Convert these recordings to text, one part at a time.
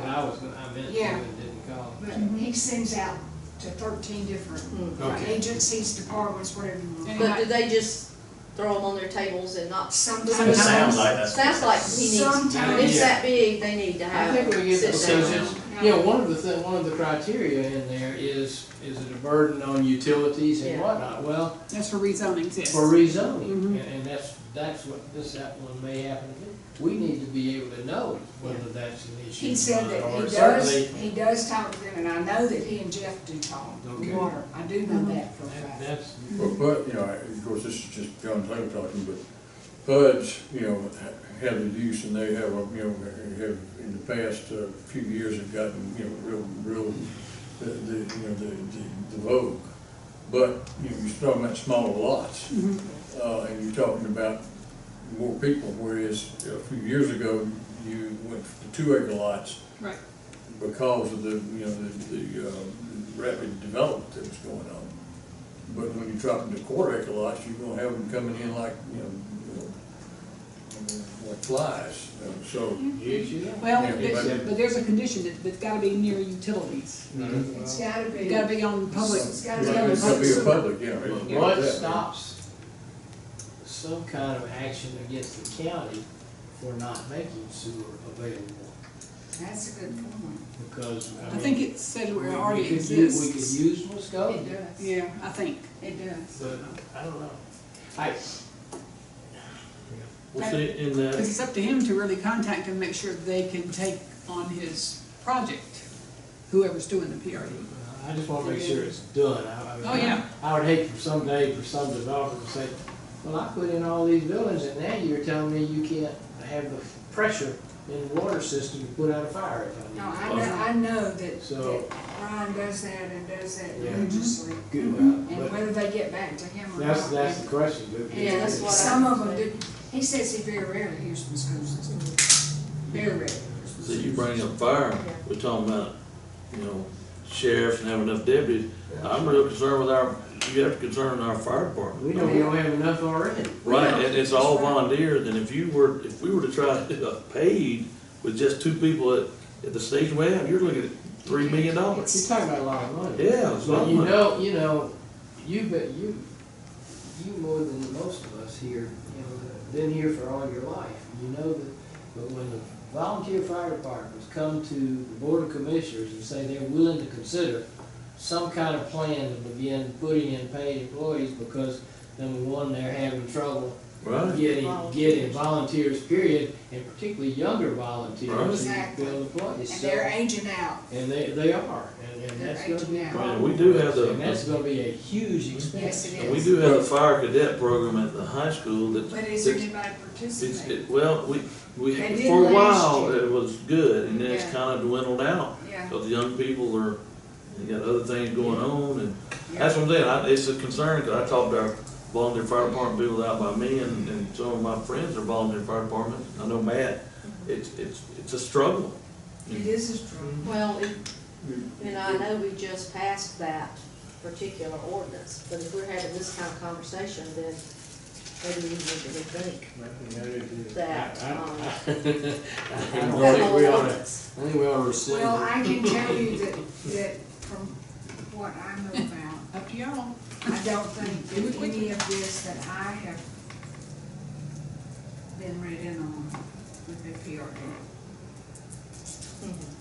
I was, gonna- I meant to Yeah. and didn't call. But he sends out to thirteen different Okay. agencies, departments, whatever you want. But do they just throw them on their tables and not? It sounds Sometimes, like that's. what Sounds it like is. he needs, if sometimes, it's that big, they need to I have. think we get, sit so down. just, you know, one of the, thi- one of the criteria in there is, is it a burden on utilities and Yeah. whatnot? Well, That's for rezoning exists. for rezoning, Mhm. and, and that's, that's what this app one may happen to be. We need to be able to know whether that's an issue. he said or that not, he or does, certainly- he does talk with them, and I know that he and Jeff do talk, Okay. water, I do know that for a Uh-huh. That- fact. That's, But, but, you know, of course, this is just John Taylor talking, but Bud's, you know, have the use and they have, a you know, have in the past uh, few years have gotten, you know, real, real, the, the, you know, the, the the vogue. But, you know, you're talking about smaller lots, uh, and you're talking about more people, whereas a few years ago, you went to two acre lots Right. because of the, you know, the, the uh, rapid development that was going on. But when you drop into quarter acre lots, you're gonna have them coming in like, you know, you know, like flies, Uh, so. yes, you know. Well, Yeah, but, but- but there's a condition that, that's gotta be near utilities. uh, It's gotta It's be, gotta be on public, It's gotta It's be gotta a public be a sewer. public, yeah. it's- What yeah. stops some kind of action against the county for not making sewer available? that's a good point, Because, I I mean. think it's said we- where it we already could use- We could exists. use Muskogee. it does, Yeah, I think. it does. But I don't know. I, We'll see in Cause that, it's up to him to really contact and make sure they can take on his project, whoever's doing the E. PRD. uh, I just wanna make sure it's done. I- I mean, Oh, yeah. I would hate for some day for some developer to say, well, I put in all these buildings and now you're telling me you can't have the pressure in the water system to put out a fire if I need. No, to." I know, I know that, So- that Ron does that and does that Yeah. religiously, Good, and but whether they get back to him or not. that's, that's the question. but- And that's what I- Some of them do, he says he very rarely hears from school system, very rarely. so you bring up fire, we're talking about, you know, sheriffs and having enough deputies. I'm real concerned with our, you have to concern our fire department. We know we don't have enough already. Right, and it's all volunteers, and if you were, if we were to try to do a paid with just two people at, at the station we have, you're looking at three million You're dollars. talking about a lot of money. Yeah, it's a lot But of you money. know, you know, you, but you, you more than most of us here, you know, that been here for all your life. You know that, but when the volunteer fire departments come to the board of commissioners and say they're willing to consider some kind of plan to begin putting in paid employees because number one, they're having trouble Right, getting, getting volunteers, period, and particularly younger volunteers to Exactly. build employees. And So- they're aging out. and they, they are, and, and that's gonna be a problem. Yeah, we do have the- And that's gonna be a huge expense. Yes, it and we is. do have a fire cadet program at the high school that. But is that's- anybody It's, participating? it, well, we, we, They did for a last while, year. it was good, and then it's Yeah. kind of dwindled out. Yeah. Because the young people are, they got other things going on, and that's what I'm saying, I, it's a concern, because I talked to our volunteer fire department people out by me, and, and some of my friends are volunteer fire departments, I know Matt, it's, it's, it's a struggle. It is a struggle. Well, it- and I know we just passed that particular ordinance, but if we're having this kind of conversation, then maybe we need to rethink that, um, I don't that think whole we ought to, I ordinance. think we ought to rescind Well, it. I can tell you that, that from what I know about, Up to y'all. I don't think that any of this that I have been read in on would be PRD.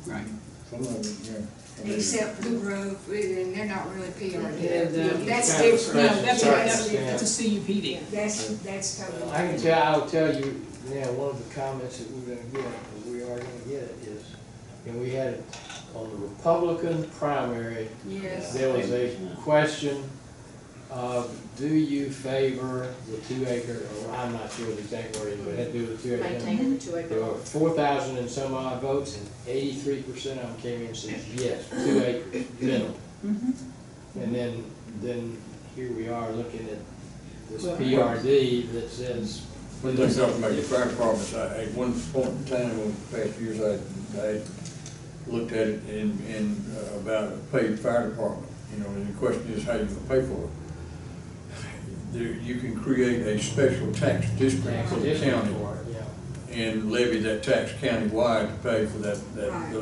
Right. Some of them, yeah. I mean, Except for the growth, and they're not really And, uh, PRD. That's kind of different. No, that's, Sorry. that's, that's a CUPD. That's, that's totally. I can tell, I'll tell you now, one of the comments that we're gonna get, that we are gonna get it is, and we had it on the Republican primary, Yes. there was a question of, do you favor the two acre, or I'm not sure the exact word, but it had to do with two acre. maintaining the two acre There were lot. four thousand and some odd votes, and eighty-three percent of them came in and said, yes, two acres, minimum. Mhm. And then, then here we are looking at this PRD that says, When they talk about the fire departments, I, at one point in time, over the past years, I, I looked at it in, in, uh, about a paid fire department, you know, and the question is how you gonna pay for it. There, you can create a special tax district tax for the addition county for it, yeah. and levy that tax countywide to pay for that, that, Right. those